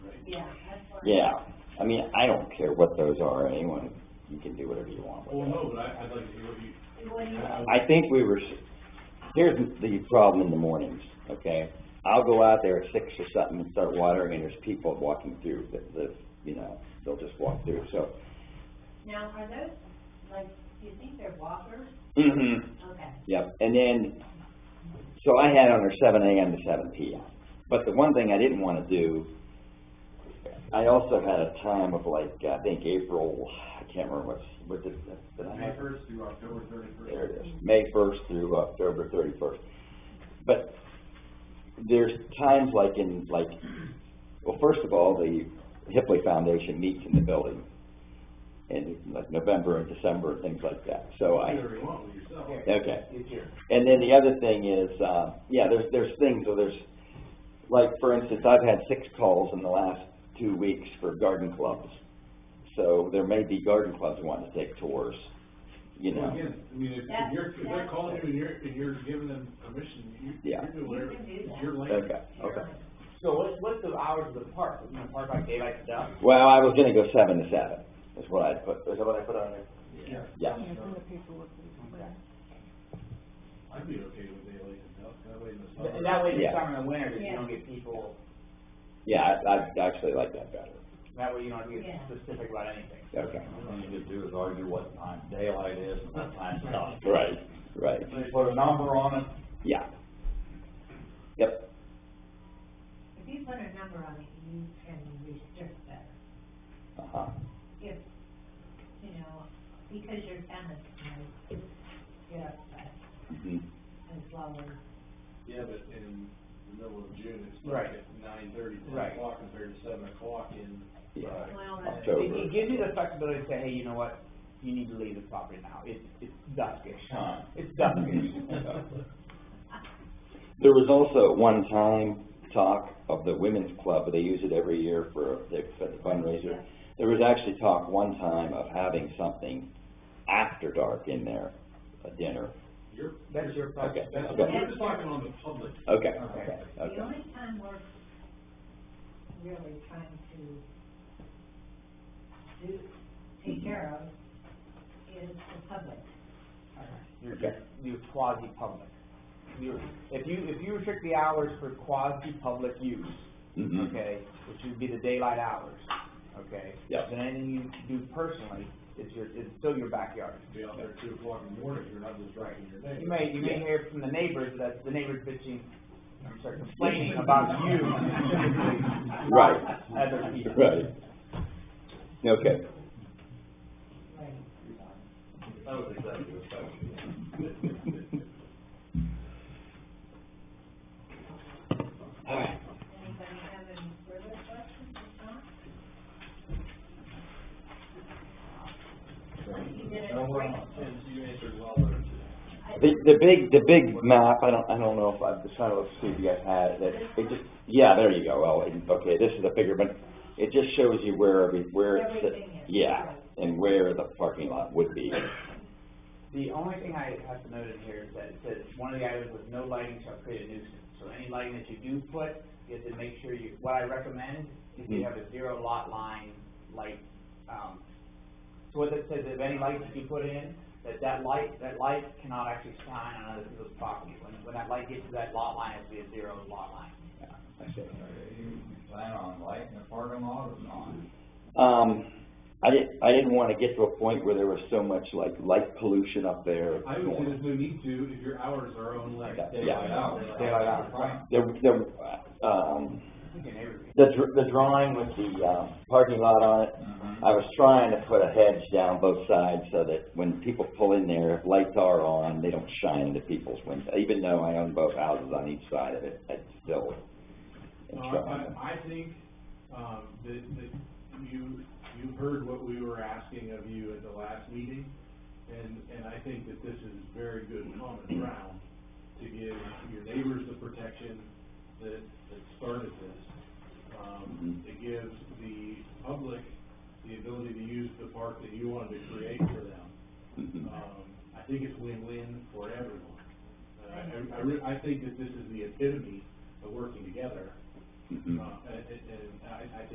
Yeah, I mean, I don't care what those are, anyone, you can do whatever you want Well, with them. no, but I, I'd like to hear what you, What do you, I- I- I think we were, s- here's the problem in the mornings, okay? I'll go out there at six or something and start watering, and there's people walking through that live, you know, they'll just walk through, so. now, are those, like, do you think they're walkers? Mm-hmm. Okay. Yep, and then, so I had on her seven AM to seven PM. But the one thing I didn't wanna do, I also had a time of like, I think April, I can't remember what's, what did, did I May have? first through October thirty-first. There it is, May first through October thirty-first. But there's times like in, like, well, first of all, the Hipley Foundation meets in the building in like November and December and things like that, so I. Whatever you want with yourself. Okay. And then the other thing is, uh, yeah, there's, there's things, so there's, like, for instance, I've had six calls in the last two weeks for garden clubs. So there may be garden clubs wanting to take tours, you Well, know? Again, I mean, if, if That's- you're, if they're that's- calling you and you're, and you're giving them permission, you, Yeah. you're doing whatever, You can do it's that. your land. Okay, okay. So what, what's the hours of the park? Is the park like daylight to dusk? Well, I was gonna go seven to seven, is what I put, is that what I put on there? Yeah, Yeah. Yeah, from the paperwork. we- I'd be okay with daylight and dusk, that way in the And summer. that way, Yeah. the summer and winter, you Yeah. don't get people, Yeah, I, I actually like that better. that way you don't get Yeah. specific about anything. Okay. All you need to do is argue what time daylight is and what time dusk. Right, right. If you put a number on it, Yeah. Yep, If you put a number on it, you can restrict better. uh-huh, If, you know, because your tenants might get upset mhm, and flowers. Yeah, but in the middle of June, it's Right. like at nine thirty, ten Right. o'clock compared to seven o'clock in. yeah, Well, that's- October. It, it gives you the flexibility to say, hey, you know what, you need to leave the property now, it's, it's duskish. Huh. It's duskish. There was also at one time talk of the women's club, but they use it every year for the for the fundraiser. There was actually talk one time of having something after dark in there, a dinner. You're, That's your Okay, problem. that's, okay, we're just talking on the public. okay, okay, Okay. The okay. only time we're really trying to do, take care of is the public. You're, Okay. you're quasi-public. You're, if you, if you restrict the hours for quasi-public use, Mhm. okay, which would be the daylight hours, okay? Yep. Then anything you do personally is your, is still your backyard. Be out there at two o'clock in the morning, if you're not disrupting your neighbor. You may, you may Yeah. hear from the neighbors that the neighbors bitching, I'm sorry, complaining about you. Right. Other people. Right. Okay, Right. That was executive session. all right. Anybody have any further questions or comments? You did it great. And you answered well there too. I- The, the big, the big map, I don't, I don't know if, I'm just trying to look, see if you guys had it, it just, yeah, there you go, oh, and- okay, this is a bigger, but it just shows you where every, where it's. Everything is, Yeah, right. and where the parking lot would be, The only thing I have to note in here is that it says, one of the items with no lighting shall create a nuisance. So any lighting that you do put, you have to make sure you, what I recommend is you have a zero lot line light, um, so what that says, if any light that you put in, that that light, that light cannot actually shine on other people's property. When, when that light gets to that lot line, it has to be a zero lot line. are you planning on lighting the parking lot or not? um, I didn't, I didn't wanna get to a point where there was so much like light pollution up there. I would say there's no need to, if your hours are own like Yeah. daylight hours. Daylight hours, right. There, there, um, Your neighbor- the dr- the drawing with the, um, parking lot on it, I was trying to put a hedge down both sides so that when people pull in there, if lights are on, they don't shine into people's windows. Even though I own both houses on each side of it, I still. am No, trying to- Uh, I, I think, um, that, that you, you heard what we were asking of you at the last meeting, and, and I think that this is very good common ground to give your neighbors the protection that, that started this. Um, it gives the public the ability to use the park that you wanted to create for them. Mhm. Um, I think it's win-win for everyone. Uh, I, I, re- I think that this is the epitome of working together, Mhm. uh, and, and- and I, I think